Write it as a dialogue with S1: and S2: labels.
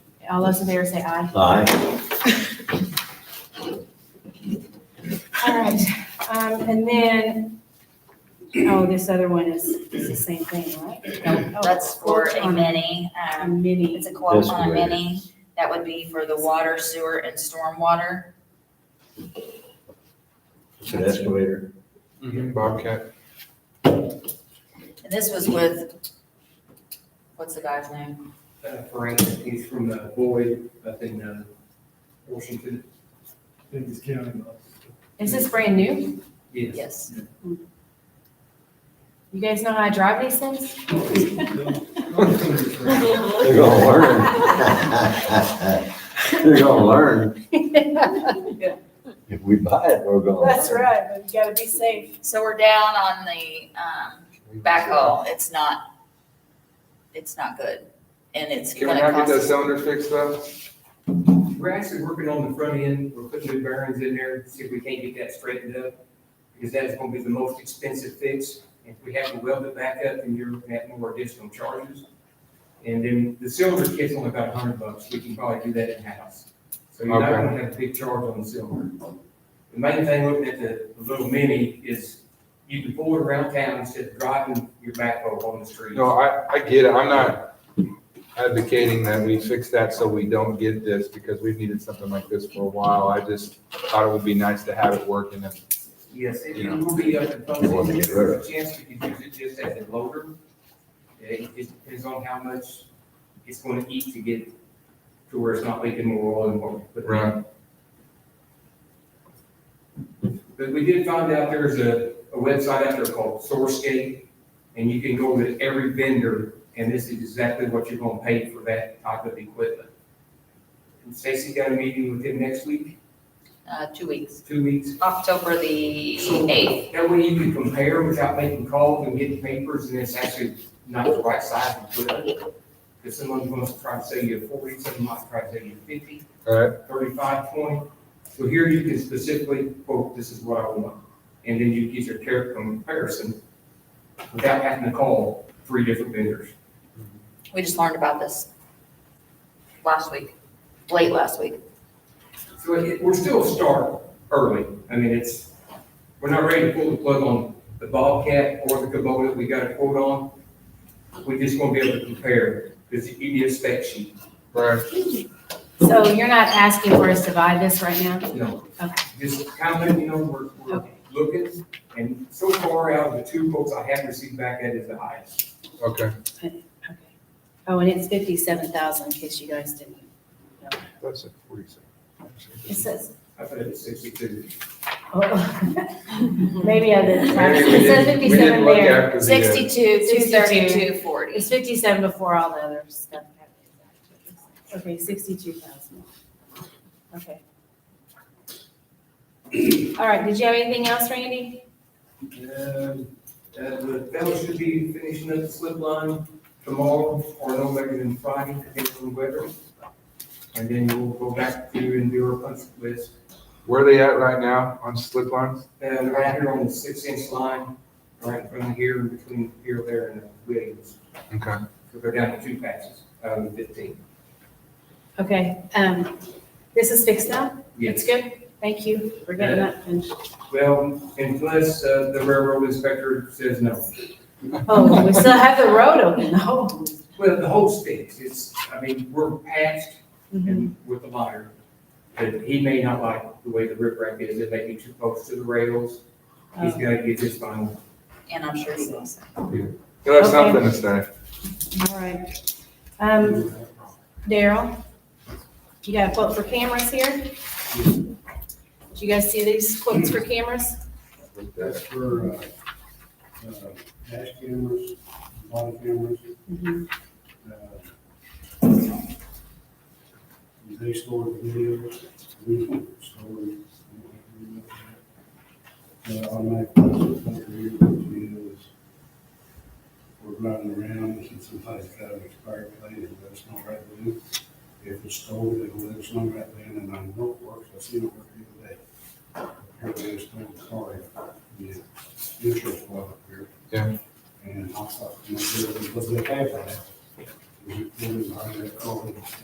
S1: All those in favor say aye.
S2: Aye.
S1: All right, um, and then, oh, this other one is, is the same thing, right?
S3: That's for
S1: Oh,
S3: a
S1: on
S3: mini,
S1: A
S3: um,
S1: mini,
S3: it's a quote
S2: That's
S3: on a
S2: great.
S3: mini. That would be for the water, sewer, and stormwater.
S2: It's an escalator.
S4: Bobcat.
S3: And this was with, what's the guy's name?
S5: uh, Frank, he's from the Boyd up in uh, Washington. I think it's county.
S1: is this brand new?
S5: Yes.
S3: Yes.
S1: You guys know how to drive these things?
S3: Mm-hmm.
S2: They're gonna learn. They're gonna learn. If we buy it, we're gonna. learn.
S1: right, but you gotta be safe.
S3: So we're down on the, um, backhoe. It's not, it's not good. And it's
S4: Can we
S3: gonna
S4: not get
S3: cost.
S4: that
S3: us-
S4: cylinder fixed though?
S5: We're actually working on the front end, we're putting new bearings in there, see if we can't get that straightened up, because that is gonna be the most expensive fix. If we have to weld it back up, then you're gonna have more additional charges. And then the silver kit's only about a hundred bucks, we can probably do that in-house. So you're not
S4: Okay.
S5: gonna have a big charge on the silver. The main thing looking at the the little mini is you can pull it around town instead of driving your backhoe on the street.
S4: No, I, I get it. I'm not advocating that we fix that so we don't get this because we've needed something like this for a while. I just thought it would be nice to have it working and
S5: Yes, it
S4: You
S5: it
S4: know.
S5: will be up to folks.
S2: You want to get rid
S5: There's a Chance we could use it just as a loader. It just depends on how much it's going to eat to get to where it's not leaking more oil and more. But-
S4: Right.
S5: But we did find out there's a, a website out there called Sourcegate, and you can go to every vendor, and this is exactly what you're going to pay for that type of equipment. And Stacy got a meeting with him next week,
S3: Uh, two weeks,
S5: two weeks.
S3: October the
S5: So-
S3: eighth.
S5: That way you can compare without making calls and getting papers and it's actually not the right size to put up. Because someone wants to try to sell you a forty, someone might try to sell you a fifty,
S4: All right,
S5: thirty-five, twenty. So here you can specifically quote, this is what I want. And then you get your care comparison without having to call three different vendors.
S3: We just learned about this last week, late last week.
S5: So it, we're still a start early. I mean, it's, we're not ready to pull the plug on the Bobcat or the Kubota we got a quote on. We just want to be able to compare, because you need a spec sheet,
S4: right.
S1: So you're not asking for us to buy this right now?
S5: you know.
S1: Okay.
S5: Just kind of, letting you know, we're, we're
S1: Okay.
S5: looking, and so far out of the two quotes I have received back, that is the highest.
S4: Okay.
S1: Okay. Oh, and it's fifty-seven thousand, in case you guys didn't. know.
S4: That's it, forty-seven.
S1: It says,
S5: I put it at sixty-two.
S1: oh, maybe I didn't.
S4: Maybe we
S1: It says
S4: didn't- we didn't
S1: fifty-seven
S4: look
S1: there.
S4: after the, uh,
S3: Sixty-two, two thirty-two,
S1: 62.
S3: forty.
S1: It's fifty-seven before all the other stuff. Okay, sixty-two thousand. Okay. All right, did you have anything else, Randy?
S5: Um, Uh, the fellow should be finishing up the slip line tomorrow or no later than Friday, depending on the weather. And then we'll go back to and do our punch list.
S4: Where are they at right now on slip lines?
S5: And right here on the six inch line, right from here, between here, there and Williams.
S4: Okay.
S5: So they're down to two patches, um, fifteen.
S1: Okay, um, this is fixed now? It's
S5: Yes.
S1: good? Thank you. We're getting that finished.
S5: Well, unless, uh, the railroad inspector says no.
S1: Oh, we still have the road open Oh. though.
S5: Well, the whole sticks, it's, I mean, we're patched and with the monitor. But he may not like the way the riprap is, it may be too close to the rails, he's
S1: Oh,
S5: gotta get his final.
S3: And I'm sure he was.
S4: You'll have
S1: Okay.
S4: something to say.
S1: Oh, All right. Um, Daryl, you got a quote for cameras here? Did you guys see these quotes for cameras?
S6: That's for, uh, uh, dash cameras, body cameras, uh, they store the videos, we store the, uh, automatic license plate reader videos. We're running around, and somebody's got an expired plate, and that's not right then. If it's stolen, it'll let us know right then, and I know it works, I seen it work the other day. Apparently it's stolen, sorry, yeah, insurance was up here.
S4: Yeah.
S6: And I thought, you know, it was a bad guy. We- we didn't hire that call.